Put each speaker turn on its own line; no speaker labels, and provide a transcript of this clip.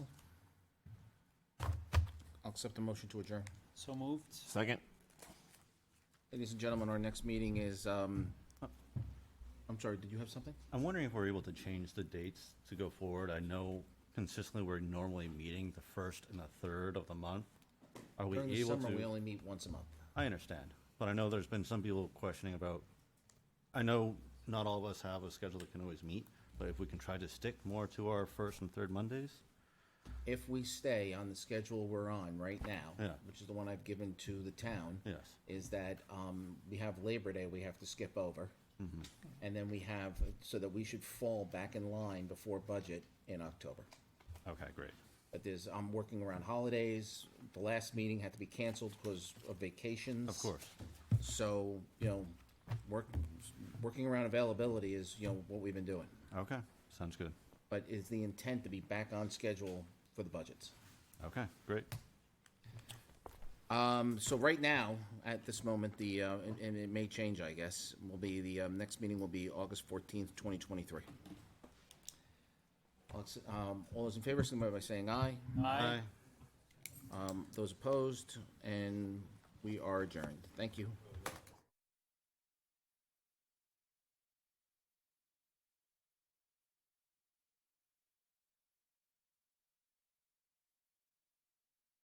I'll accept the motion to adjourn.
So moved.
Second?
Ladies and gentlemen, our next meeting is, um, I'm sorry, did you have something?
I'm wondering if we're able to change the dates to go forward. I know consistently we're normally meeting the first and the third of the month. Are we
During the
able
summer, we
to?
only meet once a month.
I understand, but I know there's been some people questioning about, I know not all of us have a schedule that can always meet, but if we can try to stick more to our first and third Mondays?
If we stay on the schedule we're on right now,
Yeah.
which is the one I've given to the town,
Yes.
is that um, we have Labor Day we have to skip over.
Mm-hmm.
And then we have, so that we should fall back in line before budget in October.
Okay, great.
But there's, I'm working around holidays. The last meeting had to be canceled because of vacations.
Of course.
So, you know, work, working around availability is, you know, what we've been doing.
Okay, sounds good.
But is the intent to be back on schedule for the budgets.
Okay, great.
Um, so right now, at this moment, the, uh, and, and it may change, I guess, will be the, um, next meeting will be August fourteenth, twenty twenty-three. Um, all those in favor, signify by saying aye.
Aye.
Um, those opposed, and we are adjourned. Thank you.